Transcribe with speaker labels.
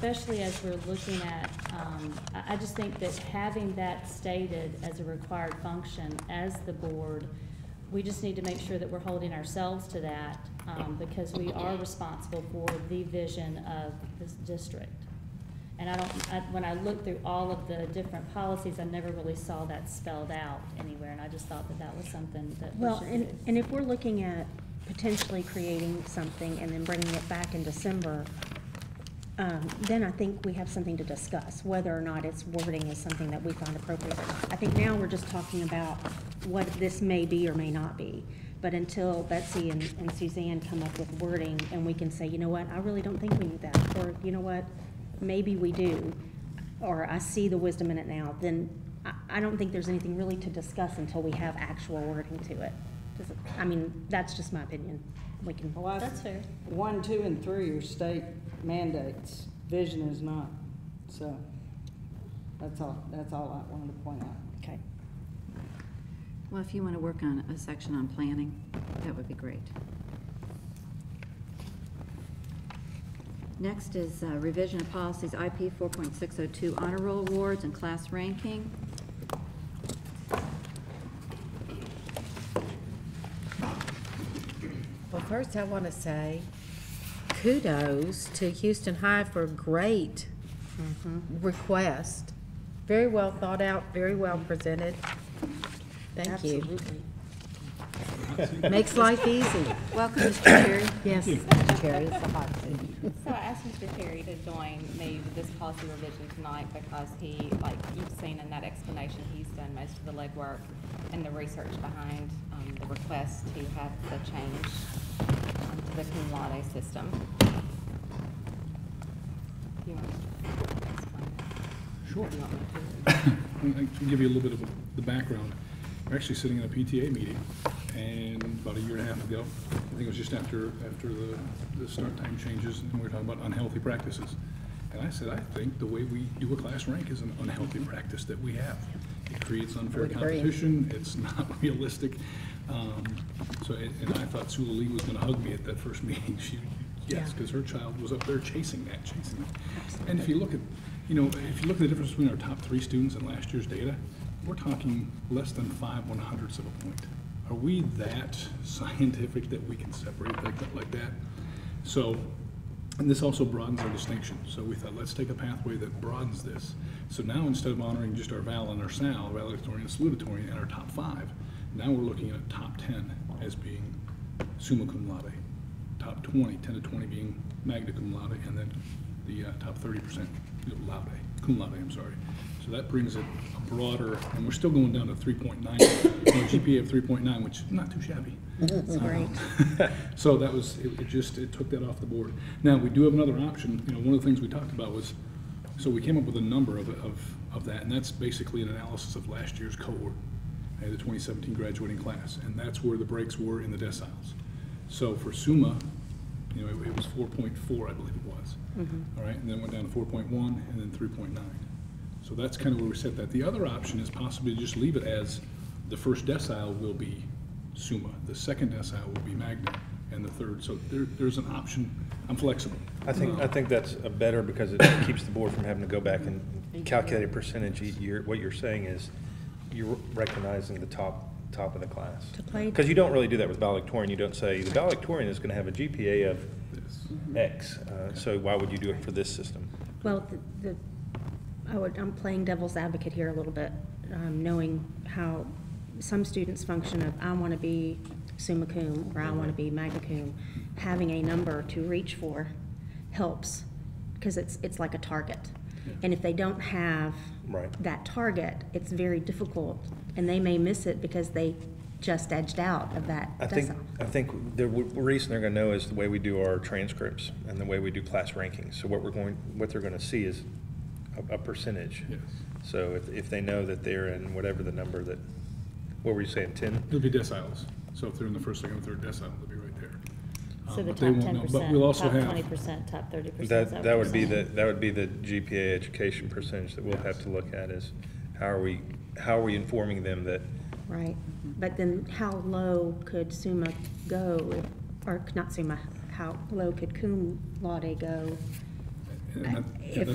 Speaker 1: especially as we're looking at, um, I, I just think that having that stated as a required function as the board, we just need to make sure that we're holding ourselves to that, um, because we are responsible for the vision of this district. And I don't, I, when I looked through all of the different policies, I never really saw that spelled out anywhere, and I just thought that that was something that we
Speaker 2: Well,
Speaker 1: should
Speaker 2: and,
Speaker 1: do.
Speaker 2: and if we're looking at potentially creating something and then bringing it back in December, um, then I think we have something to discuss, whether or not its wording is something that we find appropriate. I think now we're just talking about what this may be or may not be. But until Betsy and and Suzanne come up with wording and we can say, you know what, I really don't think we need that, or you know what, maybe we do, or I see the wisdom in it now, then I, I don't think there's anything really to discuss until we have actual wording to it. Does it- I mean, that's just my opinion. We can,
Speaker 3: Well, I-
Speaker 1: That's fair.
Speaker 3: One, two, and three are state mandates. Vision is not. So that's all, that's all I wanted to point out.
Speaker 2: okay.
Speaker 4: Well, if you want to work on a section on planning, that would be great. Next is uh, revision of policies IP 4.602 honor roll awards and class ranking.
Speaker 5: Well, first I want to say kudos to Houston High for a great request. Very well thought out, very well presented. Thank you. Makes life easy.
Speaker 4: Welcome, Mr. Terry.
Speaker 5: Yes, Terry, it's a hot seat.
Speaker 6: So I asked Mr. Terry to join me with this policy revision tonight because he, like you've seen in that explanation, he's done most of the legwork and the research behind um, the request to have the change um, to the cum laude system. You want to explain that?
Speaker 7: Sure.
Speaker 6: You want me to?
Speaker 7: I can give you a little bit of the background. We're actually sitting in a PTA meeting, and about a year and a half ago, I think it was just after, after the, the start time changes, and we were talking about unhealthy practices. And I said, I think the way we do a class rank is an unhealthy practice that we have. It creates unfair
Speaker 5: Would agree.
Speaker 7: competition, it's not realistic. Um, So, and and I thought Sula Lee was gonna hug me at that first meeting. She, yes,
Speaker 5: Yeah.
Speaker 7: because her child was up there chasing that, chasing that. And if you look at, you know, if you look at the difference between our top three students and last year's data, we're talking less than five one hundredths of a point. Are we that scientific that we can separate that like that? So, and this also broadens our distinction. So we thought, let's take a pathway that broadens this. So now instead of honoring just our val and our sal, valedictorian, salutatorian, and our top five, now we're looking at top ten as being summa cum laude. Top twenty, ten to twenty being magna cum laude, and then the uh, top thirty percent laude, cum laude, I'm sorry. So that brings it a broader, and we're still going down to three point nine, GPA of three point nine, which is not too shabby. Um,
Speaker 2: That's great.
Speaker 7: So that was, it it just, it took that off the board. Now, we do have another option, you know, one of the things we talked about was, so we came up with a number of, of, of that, and that's basically an analysis of last year's cohort, uh, the twenty seventeen graduating class, and that's where the breaks were in the deciles. So for SUMA, you know, it it was four point four, I believe it was.
Speaker 1: Mm-hmm.
Speaker 7: All right, and then went down to four point one, and then three point nine. So that's kind of where we set that. The other option is possibly to just leave it as the first decile will be summa, the second decile will be magna, and the third. So there, there's an option. I'm flexible.
Speaker 8: I think, I think that's a better because it keeps the board from having to go back and calculate a percentage each year. What you're saying is you're recognizing the top, top of the class.
Speaker 2: To play-
Speaker 8: Because you don't really do that with valedictorian. You don't say, the valedictorian is going to have a GPA of
Speaker 7: Yes.
Speaker 8: X. uh, So why would you do it for this system?
Speaker 2: Well, the, the- I would, I'm playing devil's advocate here a little bit, um, knowing how some students function of, I want to be summa cum, or I want to be magna cum. Having a number to reach for helps, because it's, it's like a target. And if they don't have
Speaker 8: Right.
Speaker 2: that target, it's very difficult, and they may miss it because they just edged out of that
Speaker 8: I think,
Speaker 2: decile.
Speaker 8: I think the w- reason they're gonna know is the way we do our transcripts and the way we do class rankings. So what we're going, what they're gonna see is a, a percentage.
Speaker 7: Yes.
Speaker 8: So if, if they know that they're in whatever the number that, what were you saying, ten?
Speaker 7: It'll be deciles. So if they're in the first, second, and third decile, they'll be right there.
Speaker 1: So
Speaker 7: Um,
Speaker 1: the
Speaker 7: but they
Speaker 1: top
Speaker 7: won't
Speaker 1: ten
Speaker 7: know.
Speaker 1: percent,
Speaker 7: But we'll also
Speaker 1: top twenty
Speaker 7: have,
Speaker 1: percent, top thirty percent.
Speaker 8: That, that would be the, that would be the GPA education percentage that we'll have to look at is how are we, how are we informing them that,
Speaker 2: Right, but then how low could Summa go, if- or not Summa, how low could cum laude go
Speaker 9: And that-
Speaker 7: If-